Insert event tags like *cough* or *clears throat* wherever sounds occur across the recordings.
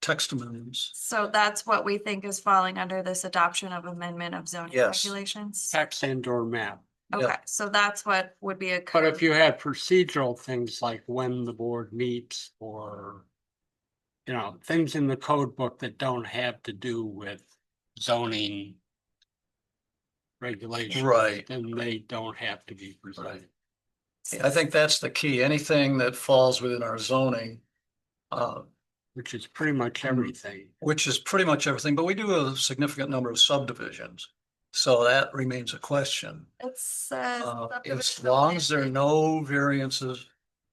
text amendments. So that's what we think is falling under this adoption of amendment of zoning Yes. regulations? text and or map. yeah. Okay, so that's what would be a. But if code- you had procedural things like when the board meets or you know, things in the code book that don't have to do with zoning regulations. Right. Then they don't have to be presented. I think that's the key. Anything that falls within our zoning, uh, which is pretty much Hmm. everything. which is pretty much everything, but we do a significant number of subdivisions. So that remains a question. It says. Uh, As subdivision of long land as there are in- no variances,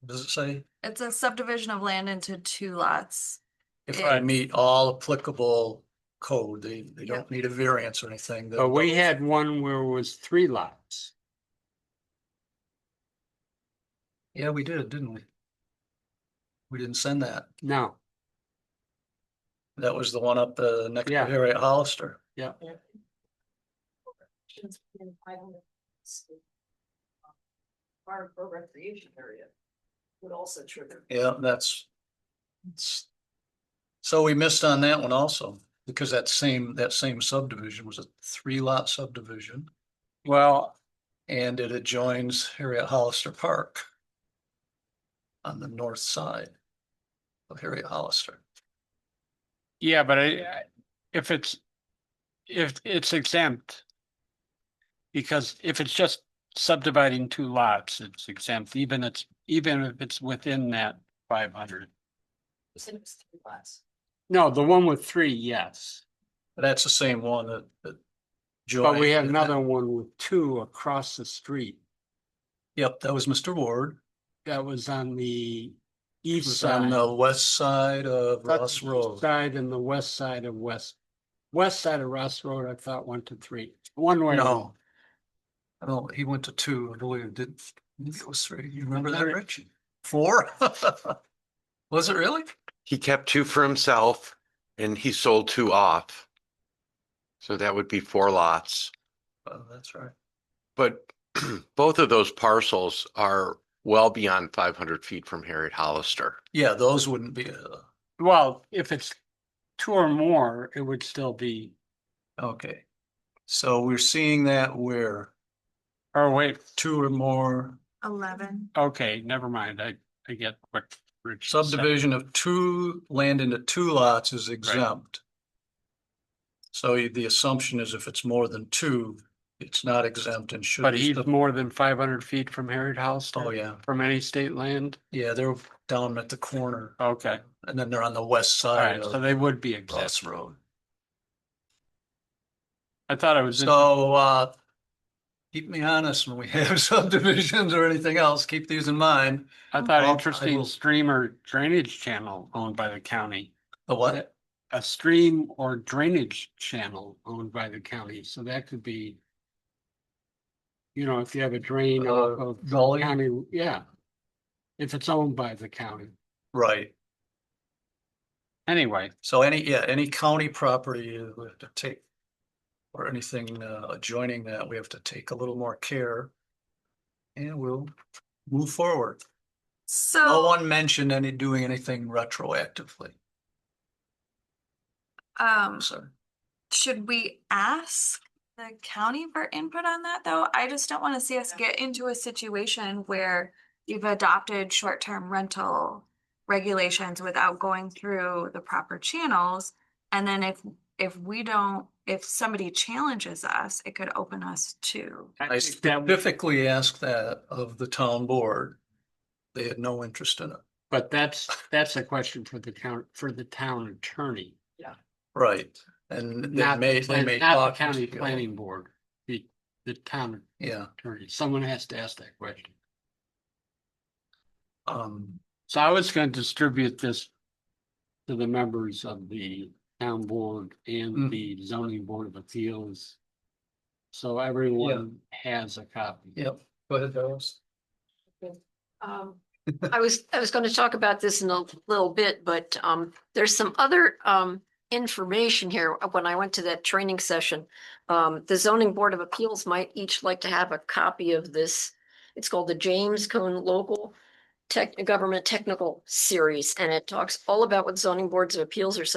does it say? It's a subdivision of land into two lots. If Yeah. I meet all applicable code, they, they don't need a variance or anything. that- But we had one where it was three lots. Yeah, we did, didn't we? We didn't send that. No, That was the one up the next to Yeah. Harriet Hollister. Park or recreation area would also trigger. Yeah, that's. it's- So we missed on that one also, because that same, that same subdivision was a three lot subdivision well, and it adjoins Harriet Hollister Park. On the north side of Harriet Hollister. yeah, but I, if it's, if it's exempt. Because if it's just subdividing two lots, it's exempt, even it's, even if it's within that five hundred. You said it was three lots. No, the one with three, yes, That's the same one that, that. but we joined- had another one with two across the street. Yep, that was Mr. Ward. That was on the He east was side. on the west side of Ross That's the Road. Side and the west side of West, west side of Ross Road, I thought one to three, one way. No. I don't, he went to two, I believe, did, maybe it was three, you remember that, Remember. Rich? Four? *laughs* Was it really? He kept two for himself and he sold two off. So that would be four lots, Oh, that's right. but *clears throat* both of those parcels are well beyond five hundred feet from Harriet Hollister. Yeah, those wouldn't be, uh, Well, if it's two or more, it would still be, okay. So we're seeing that where or wait, two or more Eleven. okay, never mind, I, I get what. Rich said. subdivision of two, land into two lots is exempt. So y- the assumption is if it's more than two, it's not exempt and should. But be he's sub- more than five hundred feet from Harriet House. Oh, yeah, From any state land, yeah, they're down at the corner okay, and then they're on the west side alright, so of they would be exempt, Ross Road. I thought it was. in- So, uh, keep me honest when we have *laughs* subdivisions or anything else, keep these in mind. I thought Well, I interesting will- stream or drainage channel owned by the county. The what? A stream or drainage channel owned by the county, so that could be. You know, if you have a drain off Uh, of Gully? county, yeah. If it's owned by the county, Right. anyway, So any, yeah, any county property you have to take or anything uh, adjoining that, we have to take a little more care. And we'll move forward. No So, Oh, one mentioned any, doing anything retroactively, um, so. should we ask the county for input on that, though? I just don't wanna see us get into a situation where you've adopted short-term rental regulations without going through the proper channels. And then if, if we don't, if somebody challenges us, it could open us to. I I think that, would- specifically asked that of the town board. They had no interest in it. but that's, that's a question for the town, for the town attorney. Right, and they Not, the may, they plan- may. not talk the to county you. planning board, the, the town Yeah, attorney, someone has to ask that question. um, So I was gonna distribute this to the members of the town board Mm. and the zoning board of appeals. So everyone has a copy. yep, go ahead, Doris. Um, I was, I was gonna talk about this in a little bit, but, um, there's some other, um, information here. Uh, When I went to that training session, um, the zoning board of appeals might each like to have a copy of this. It's called the James Cone Local Tech, Government Technical Series, and it talks all about what zoning boards of appeals are